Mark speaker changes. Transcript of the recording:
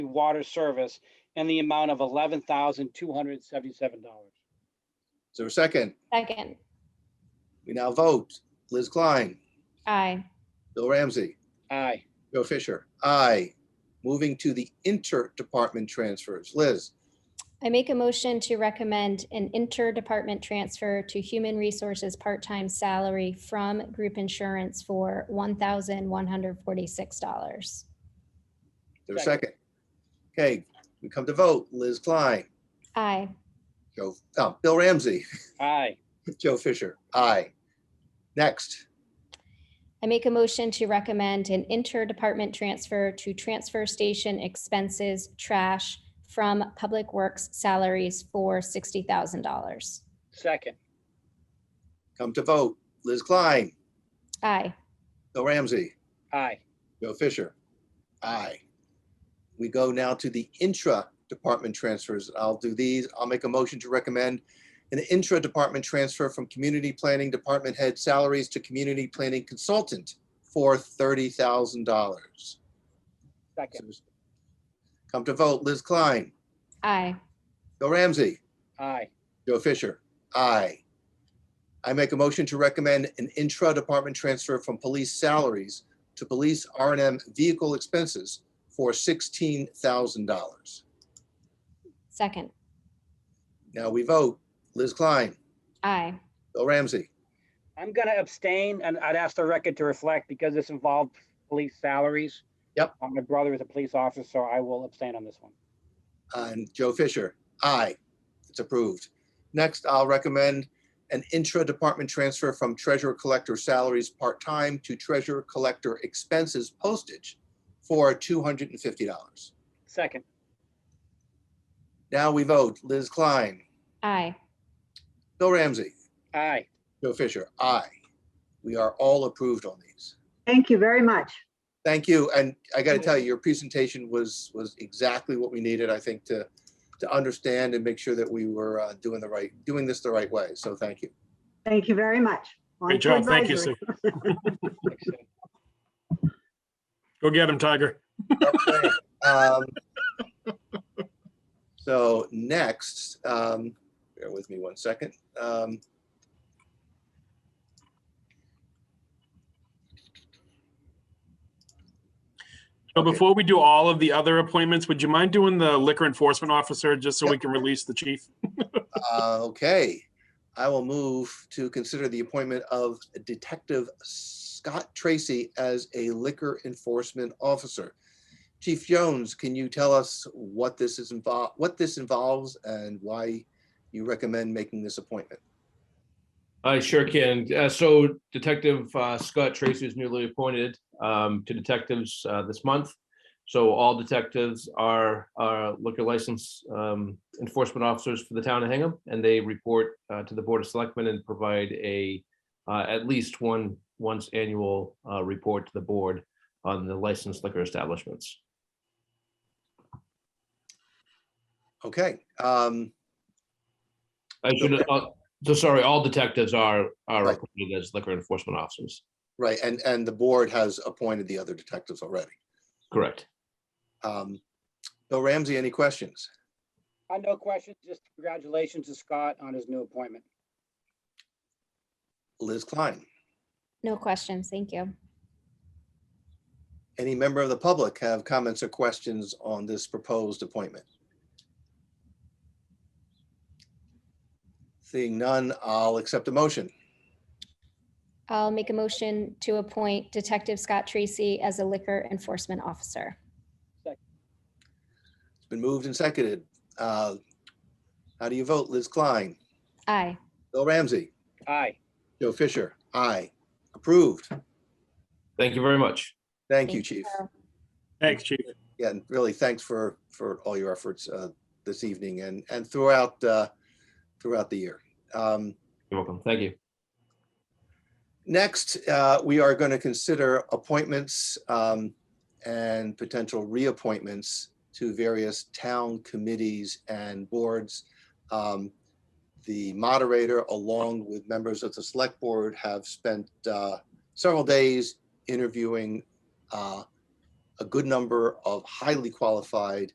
Speaker 1: water service in the amount of eleven thousand two hundred seventy-seven dollars.
Speaker 2: Is there a second?
Speaker 3: Second,
Speaker 2: We now vote. Liz Klein,
Speaker 3: aye.
Speaker 2: Bill Ramsey,
Speaker 1: Aye.
Speaker 2: Joe Fisher, aye. Moving to the interdepartment transfers. Liz,
Speaker 3: I make a motion to recommend an interdepartment transfer to human resources part-time salary from group insurance for one thousand one hundred forty-six dollars.
Speaker 2: is there a second?
Speaker 1: Second.
Speaker 2: Okay, we come to vote. Liz Klein,
Speaker 3: Aye.
Speaker 2: Joe, oh, Bill Ramsey,
Speaker 1: Aye.
Speaker 2: Joe Fisher, aye. Next,
Speaker 3: I make a motion to recommend an interdepartment transfer to transfer station expenses trash from public works salaries for sixty thousand dollars.
Speaker 1: Second.
Speaker 2: come to vote. Liz Klein,
Speaker 3: Aye.
Speaker 2: Bill Ramsey,
Speaker 1: Aye.
Speaker 2: Joe Fisher, aye. We go now to the intra-department transfers. I'll do these. I'll make a motion to recommend an intra-department transfer from Community Planning Department Head salaries to Community Planning Consultant for thirty thousand dollars.
Speaker 1: Second.
Speaker 2: Come to vote, Liz Klein,
Speaker 3: Aye.
Speaker 2: Bill Ramsey,
Speaker 1: Aye.
Speaker 2: Joe Fisher, aye. I make a motion to recommend an intra-department transfer from police salaries to police R and M vehicle expenses for sixteen thousand dollars.
Speaker 3: Second,
Speaker 2: Now we vote. Liz Klein,
Speaker 3: aye.
Speaker 2: Bill Ramsey,
Speaker 1: I'm gonna abstain and I'd ask the record to reflect because this involved police salaries.
Speaker 2: Yep.
Speaker 1: Uh, My brother is a police officer, so I will abstain on this one.
Speaker 2: and Joe Fisher, aye. It's approved. Next, I'll recommend an intra-department transfer from treasurer collector salaries part-time to treasurer collector expenses postage for two hundred and fifty dollars.
Speaker 1: Second.
Speaker 2: Now we vote. Liz Klein,
Speaker 3: Aye.
Speaker 2: Bill Ramsey,
Speaker 1: Aye.
Speaker 2: Joe Fisher, aye. We are all approved on these.
Speaker 4: Thank you very much.
Speaker 2: Thank you. And I got to tell you, your presentation was, was exactly what we needed, I think, to, to understand and make sure that we were uh, doing the right, doing this the right way. So thank you.
Speaker 4: Thank you very much. On to
Speaker 5: Great job. Thank you, Sue.
Speaker 4: advisory.
Speaker 5: Go get him, Tiger.
Speaker 2: Um, So next, um, bear with me one second. Um,
Speaker 5: So
Speaker 2: Okay.
Speaker 5: before we do all of the other appointments, would you mind doing the liquor enforcement officer just so we can release the chief?
Speaker 2: Uh, Okay, I will move to consider the appointment of Detective Scott Tracy as a liquor enforcement officer. Chief Jones, can you tell us what this is involved, what this involves and why you recommend making this appointment?
Speaker 6: I sure can. Uh, so Detective uh, Scott Tracy is newly appointed um, to detectives uh, this month. So all detectives are are liquor license um, enforcement officers for the town of Hingham, and they report uh, to the Board of Selectmen and provide a uh, at least one once annual uh, report to the board on the licensed liquor establishments.
Speaker 2: Okay, um,
Speaker 6: I should, uh, so sorry, all detectives are are
Speaker 2: Right.
Speaker 6: appointed as liquor enforcement officers.
Speaker 2: right, and, and the board has appointed the other detectives already.
Speaker 6: Correct.
Speaker 2: Um, Bill Ramsey, any questions?
Speaker 1: Uh, no questions, just congratulations to Scott on his new appointment.
Speaker 2: Liz Klein?
Speaker 3: No questions. Thank you.
Speaker 2: Any member of the public have comments or questions on this proposed appointment? Seeing none, I'll accept a motion.
Speaker 3: I'll make a motion to appoint Detective Scott Tracy as a liquor enforcement officer.
Speaker 2: It's been moved and seconded. Uh, How do you vote? Liz Klein,
Speaker 3: Aye.
Speaker 2: Bill Ramsey,
Speaker 1: Aye.
Speaker 2: Joe Fisher, aye. Approved.
Speaker 6: Thank you very much.
Speaker 2: Thank you, Chief.
Speaker 5: Thanks, chief.
Speaker 2: Yeah, and really, thanks for, for all your efforts uh, this evening and, and throughout, uh, throughout the year. Um,
Speaker 6: You're welcome. Thank you.
Speaker 2: Next, uh, we are going to consider appointments um, and potential reappointments to various town committees and boards. Um, The moderator, along with members of the select board, have spent uh, several days interviewing uh, a good number of highly qualified